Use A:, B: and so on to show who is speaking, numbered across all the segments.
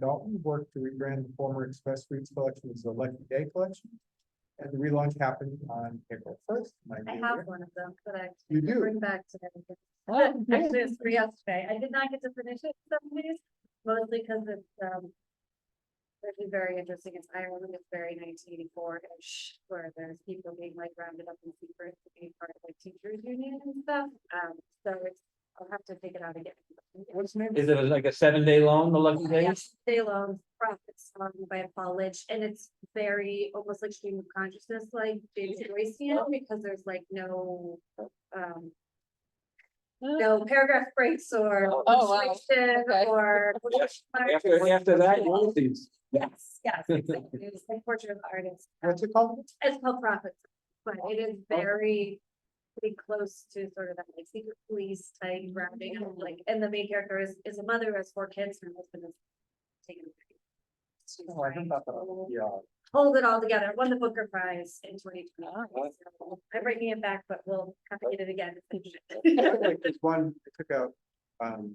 A: Dalton worked to rebrand the former Express Streets collection as the Lucky Day Collection. And the relaunch happened on April first.
B: I have one of them, but I
A: You
B: can
A: do?
B: bring back today.
C: Oh,
B: Actually, it's for yesterday. I did not get to finish it some days, mostly because it's, um. Actually very interesting. It's Ireland. It's very nineteen eighty-four-ish, where there's people being like rounded up in secret to be part of like teachers union and stuff. Um, so it's, I'll have to take it out again.
A: What's the name?
C: Is it like a seven day loan, the lucky days?
B: Yes, Day long, profits song um, by Paul Lynch, and it's very almost like stream of consciousness, like James Joycean, because there's like no. Um, no paragraph breaks or
C: Oh, wow.
B: punctuation
C: Okay.
B: or.
C: Yes. After, after that, you want these.
B: Yes, yes, exactly. It's like portrait of artist. Um,
A: What's it called?
B: It's called profits, but it is
A: Oh.
B: very. Pretty close to sort of that like secret police type
A: Mm-hmm.
B: wrapping up, like, and the main character is, is a mother who has four kids, and her husband is. Taken. She's
A: Oh, I heard
B: trying
A: about
B: to-
A: that. Yeah.
B: hold it all together, won the Booker Prize in twenty
C: Oh.
A: Ah,
B: twenty. I'm bringing it back, but we'll have to get it again.
A: Like There's one, I took out, um,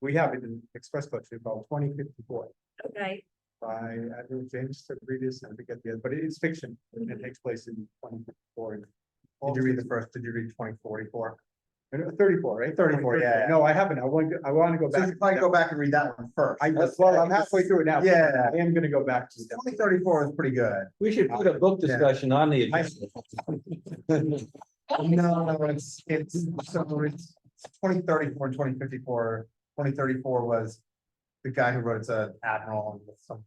A: we have it in Express Collection called twenty fifty-four
B: Okay,
A: by Andrew James Sabrides, I forget the other, but it is fiction. and It takes place in twenty fifty-four. Did you read the first, did you read twenty forty-four? uh, Thirty-four, right?
D: 34, yeah.
A: No, I haven't. I want, to. I want to go
D: So
A: back.
D: you probably go back and read that one first.
A: I, well, I'm halfway through it now.
D: Yeah.
A: I am gonna go back to that.
D: Twenty thirty-four is pretty good.
C: We should put a book discussion on the. agenda.
D: No, no, it's, it's, so it's twenty thirty-four, twenty fifty-four, twenty thirty-four was the guy who wrote it's an admiral and some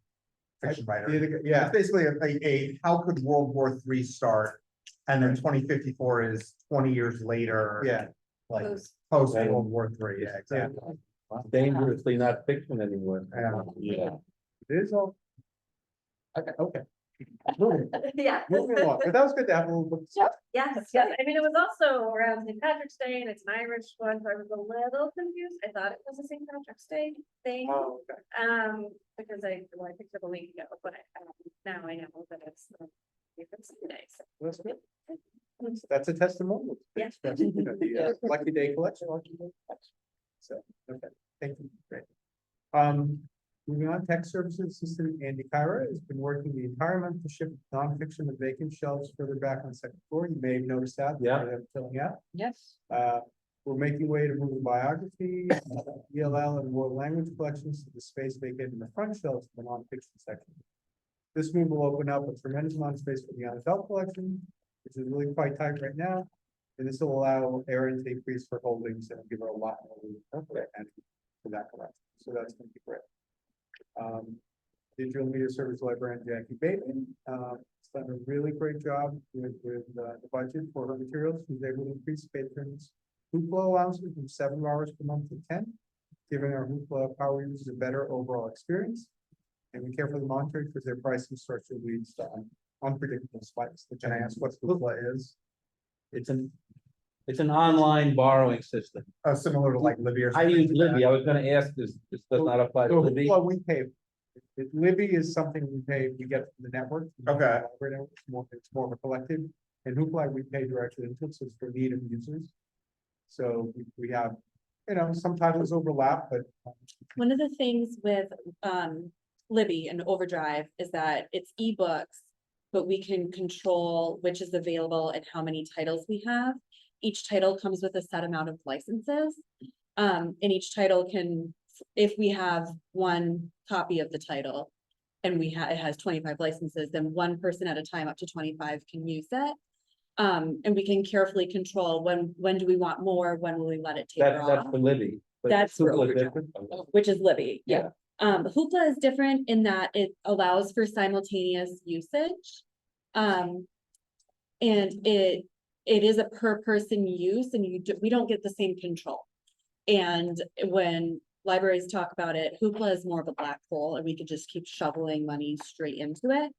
D: fiction
A: The
D: writer.
A: other guy-
D: It's
A: Yeah,
D: basically a, a- a, how could World War Three start? And then twenty fifty-four is twenty years later.
A: yeah.
D: Like
B: Post.
D: post World War Three, yeah, exactly.
C: Dangerously not fiction anymore.
D: Yeah.
C: Yeah.
A: It is all. Okay, okay. Moving
B: yeah,
A: moving along, but that was good to have a little. bit-
B: yes, yes. I mean, it was also around St. Patrick's Day and it's an Irish one, so I was a little confused. I thought it was a St. Patrick's Day thing.
A: Oh, okay.
B: Um, because I, well, I picked it up a week ago, but um, now I know that it's. um, It's Sunday, so.
A: That's good. That's a testimonial.
B: Yeah.
A: That's, you know, the, uh, Lucky Day Collection. Lucky Day Collection. So, okay, thank you, great. Um, moving on, tech services assistant Andy Kyra has been working the entire month to ship nonfiction to vacant shelves further back on the second floor. You may have noticed that.
C: Yeah.
A: they're Filling out.
C: Yes.
A: Uh, we're making way to move the biography, ELL and world language collections to the space vacant in the front shelves of the nonfiction section. This move will open up a tremendous amount of space for the adult collection, which is really quite tight right now. And this will allow Erin to increase her holdings and give her a lot more room and for that collection. So that's gonna be great. Um, digital media service librarian Jackie Bateman, uh, has done a really great job with, with uh, the budget for her materials. She's able to increase patrons' hoopla allowances from seven hours per month to ten, giving our hoopla power users a better overall experience. And we care for the monitoring because their pricing structure leads to un- unpredictable spikes. Can I ask what hoopla is?
C: It's an, it's an online borrowing system.
D: Uh, similar to like Libby or.
C: I
D: something
C: use
D: like that.
C: Libby. I was gonna ask this, this does not apply to
A: So
C: Libby.
A: Hoopla we pay, if Libby is something we pay, we get from the network. from the
D: Okay.
A: library network, It's more, it's more of a collective, and Hoopla we pay directly into, it, so it's for need of users. So we, we have, you know, some titles overlap, but
E: One of the things with um Libby and Overdrive is that it's ebooks. But we can control which is available and how many titles we have. Each title comes with a set amount of licenses. Um, and each title can, if we have one copy of the title. And we ha- it has twenty-five licenses, then one person at a time up to twenty-five can use it. Um, and we can carefully control when, when do we want more, when will we let it taper
C: That,
E: off?
C: that's for Libby. but
E: That's for
C: Hoopla is
E: overdrive.
C: different.
E: Oh, which is Libby.
C: Yeah.
E: Um, Hoopla is different in that it allows for simultaneous usage. Um, and it, it is a per person use and you, do- we don't get the same control. And when libraries talk about it, Hoopla is more of a black hole and we could just keep shoveling money straight into it.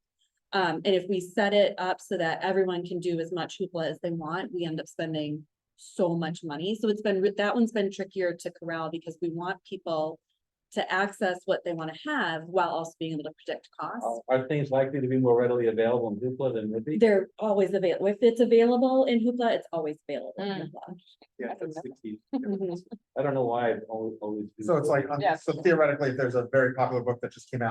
E: Um, and if we set it up so that everyone can do as much Hoopla as they want, we end up spending so much money. So it's been, re- that one's been trickier to corral because we want people to access what they want to have while also being able to predict costs.
C: Are things likely to be more readily available in Hoopla than Libby?
E: They're always available. If it's available in Hoopla, it's always available in
F: Mm.
E: Hoopla.
C: Yeah, that's the key.
E: Mhm.
C: I don't know why I've always. always been-
D: So it's like, um,
F: Yes.
D: so theoretically, if there's a very popular book that just came out.